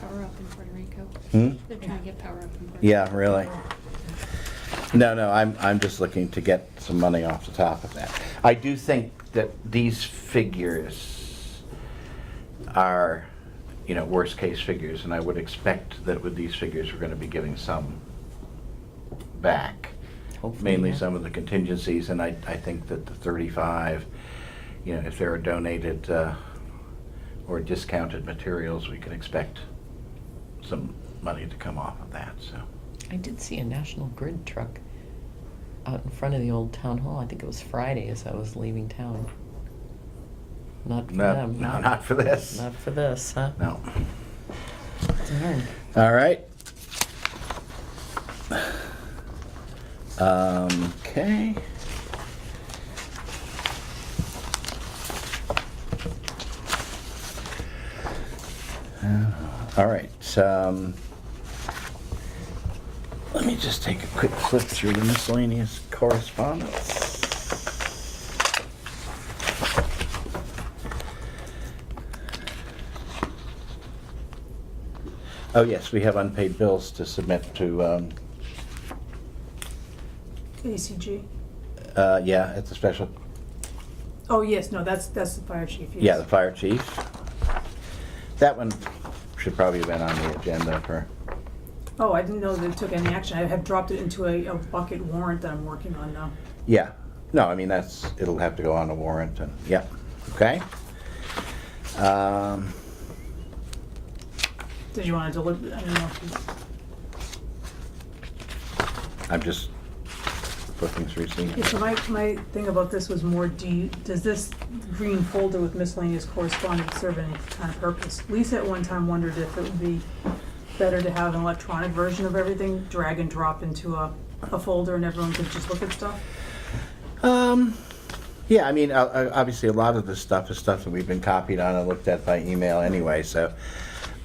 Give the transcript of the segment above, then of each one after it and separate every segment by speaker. Speaker 1: power up in Puerto Rico.
Speaker 2: Hmm?
Speaker 1: They're trying to get power up in Puerto Rico.
Speaker 2: Yeah, really. No, no, I'm, I'm just looking to get some money off the top of that. I do think that these figures are, you know, worst-case figures, and I would expect that with these figures, we're gonna be giving some back.
Speaker 3: Hopefully,
Speaker 2: Mainly
Speaker 3: yeah.
Speaker 2: some of the contingencies, and I, I think that the 35, you know, if there are donated uh, or discounted materials, we can expect some money to come off of that, so.
Speaker 3: I did see a National Grid truck out in front of the old town hall. I think it was Friday as I was leaving town. Not for
Speaker 2: No,
Speaker 3: them.
Speaker 2: no, not for this.
Speaker 3: Not for this, huh?
Speaker 2: No.
Speaker 3: Darn.
Speaker 2: All right. Um, okay. Uh, All right, um, let me just take a quick flip through the miscellaneous correspondence. Oh, yes, we have unpaid bills to submit to, um,
Speaker 4: ACG.
Speaker 2: uh, yeah, it's a special,
Speaker 4: Oh, yes, no, that's, that's the fire chief, yes.
Speaker 2: yeah, the fire chief. That one should probably have been on the agenda for,
Speaker 4: Oh, I didn't know they took any action. I have dropped it into a, a bucket warrant that I'm working on now.
Speaker 2: yeah. No, I mean, that's, it'll have to go on a warrant and, yeah, okay? Um,
Speaker 4: Did you want to deliver, I don't know if you,
Speaker 2: I'm just flipping through seeing.
Speaker 4: Yeah, so my, my thing about this was more, do you, does this green folder with miscellaneous correspondence serve any kind of purpose? Lisa at one time wondered if it would be better to have an electronic version of everything, drag and drop into a, a folder and everyone could just look at stuff.
Speaker 2: Um, yeah, I mean, uh, uh, obviously, a lot of this stuff is stuff that we've been copied on and looked at by email anyway, so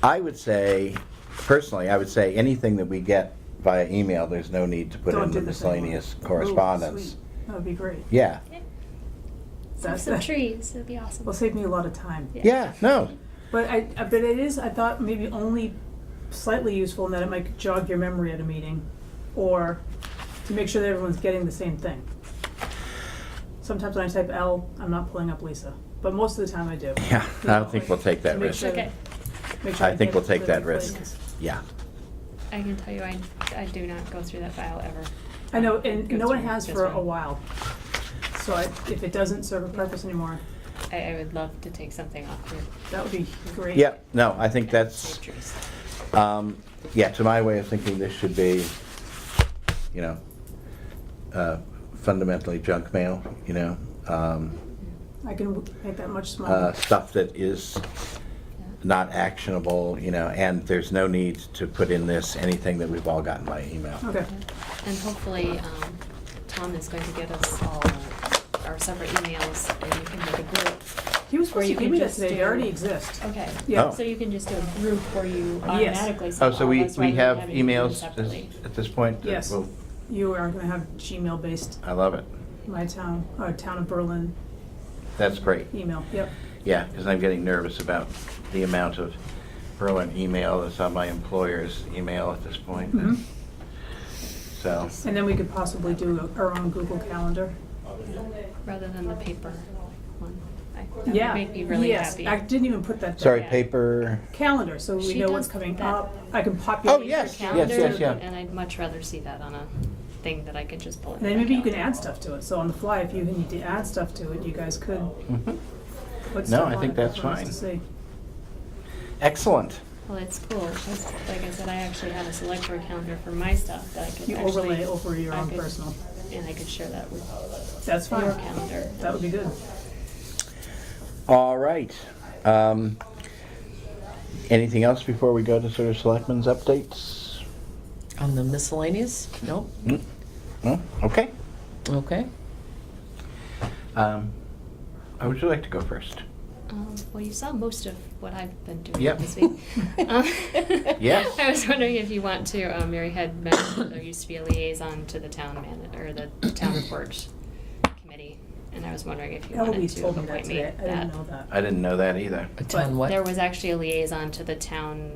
Speaker 2: I would say, personally, I would say anything that we get via email, there's no need to put
Speaker 4: Don't
Speaker 2: in
Speaker 4: do
Speaker 2: the
Speaker 4: this anymore.
Speaker 2: miscellaneous
Speaker 4: Ooh,
Speaker 2: correspondence.
Speaker 4: Oh, sweet. That would be great.
Speaker 2: Yeah,
Speaker 1: Some,
Speaker 4: That's,
Speaker 1: some
Speaker 4: that
Speaker 1: trees, it'd be awesome.
Speaker 4: will save me a lot of time.
Speaker 2: yeah, no,
Speaker 4: But I, I- but it is, I thought maybe only slightly useful in that it might jog your memory at a meeting, or to make sure that everyone's getting the same thing. Sometimes when I type L, I'm not pulling up Lisa, but most of the time I do.
Speaker 2: yeah, I don't think we'll take that
Speaker 4: Make
Speaker 2: risk.
Speaker 4: sure-
Speaker 1: Okay,
Speaker 4: Make sure
Speaker 2: I think
Speaker 4: get
Speaker 2: we'll take
Speaker 4: the
Speaker 2: that
Speaker 4: right
Speaker 2: risk.
Speaker 4: place.
Speaker 2: Yeah,
Speaker 1: I can tell you, I, I do not go through that file ever.
Speaker 4: I know, and
Speaker 1: Go
Speaker 4: no one
Speaker 1: through
Speaker 4: has
Speaker 1: this
Speaker 4: for a
Speaker 1: one.
Speaker 4: while, so I, if it doesn't serve a purpose anymore,
Speaker 1: I, I would love to take something off your.
Speaker 4: that would be great.
Speaker 2: yeah, no, I think that's,
Speaker 1: Save trees.
Speaker 2: um, yeah, to my way of thinking, this should be, you know, uh, fundamentally junk mail, you know? um,
Speaker 4: I can w- make that much
Speaker 2: uh,
Speaker 4: smaller.
Speaker 2: stuff that is
Speaker 1: Yeah.
Speaker 2: not actionable, you know, and there's no need to put in this anything that we've all gotten by email.
Speaker 4: Okay,
Speaker 1: And hopefully, um, Tom is going to get us all our separate emails and you can make a group.
Speaker 4: he
Speaker 1: Or
Speaker 4: was supposed
Speaker 1: you
Speaker 4: to give
Speaker 1: could
Speaker 4: me that
Speaker 1: just
Speaker 4: today, they
Speaker 1: do-
Speaker 4: already exist.
Speaker 1: Okay.
Speaker 4: Yeah.
Speaker 2: Oh.
Speaker 1: So you can just do a group where you
Speaker 4: Yes.
Speaker 1: automatically.
Speaker 2: Oh,
Speaker 1: send
Speaker 2: so
Speaker 1: all
Speaker 2: we,
Speaker 1: of us
Speaker 2: we
Speaker 1: rather than
Speaker 2: have
Speaker 1: having to do them
Speaker 2: emails at
Speaker 1: separately.
Speaker 2: this- at this point? that
Speaker 4: Yes.
Speaker 2: will-
Speaker 4: You are gonna have Gmail-based
Speaker 2: I love it.
Speaker 4: My town, or town of Berlin
Speaker 2: That's great.
Speaker 4: email, yep.
Speaker 2: Yeah, because I'm getting nervous about the amount of Berlin email that's on my employer's email at this point.
Speaker 4: Mhm.
Speaker 2: So,
Speaker 4: And then we could possibly do our own Google Calendar.
Speaker 1: Rather than the paper one. I- That
Speaker 4: Yeah,
Speaker 1: would make me really
Speaker 4: yes,
Speaker 1: happy.
Speaker 4: I didn't even put that
Speaker 2: sorry,
Speaker 4: there.
Speaker 1: Yeah.
Speaker 2: paper,
Speaker 4: Calendar, so we
Speaker 1: She
Speaker 4: know what's
Speaker 1: does
Speaker 4: coming
Speaker 1: that.
Speaker 4: up. I can populate
Speaker 2: Oh,
Speaker 4: your
Speaker 2: yes,
Speaker 4: calendar.
Speaker 2: yes, yes, yeah.
Speaker 1: And I'd much rather see that on a thing that I could just pull.
Speaker 4: And then maybe you can add stuff to it. So on the fly, if you need to add stuff to it, you guys could
Speaker 2: Mhm.
Speaker 4: put stuff
Speaker 2: I
Speaker 4: on
Speaker 2: think
Speaker 4: it
Speaker 2: that's
Speaker 4: for us
Speaker 2: fine.
Speaker 4: to see.
Speaker 2: excellent.
Speaker 1: Well, it's cool, 'cause like I said, I actually have a select board calendar for my stuff that I could actually.
Speaker 4: You overlay over your
Speaker 1: I
Speaker 4: own
Speaker 1: could-
Speaker 4: personal.
Speaker 1: And I could share that with
Speaker 4: That's
Speaker 1: your
Speaker 4: fine.
Speaker 1: calendar.
Speaker 4: That would be good.
Speaker 2: All right. Um, Anything else before we go to sort of selectmen's updates? Hmm?
Speaker 3: On the miscellaneous? Nope.
Speaker 2: No? Okay.
Speaker 3: Okay.
Speaker 2: Um, I would you like to go first?
Speaker 1: Um, well, you saw most of what I've been doing
Speaker 2: Yep.
Speaker 1: this week. Um,
Speaker 2: Yes.
Speaker 1: I was wondering if you want to. Um, Mary had mentioned there used to be a liaison to the town man or the town report committee, and I was wondering if you wanted
Speaker 4: Eloise
Speaker 1: to
Speaker 4: told me that
Speaker 1: appoint me.
Speaker 4: today. I didn't know that.
Speaker 2: I didn't know that either.
Speaker 3: A town what?
Speaker 1: There was actually a liaison to the town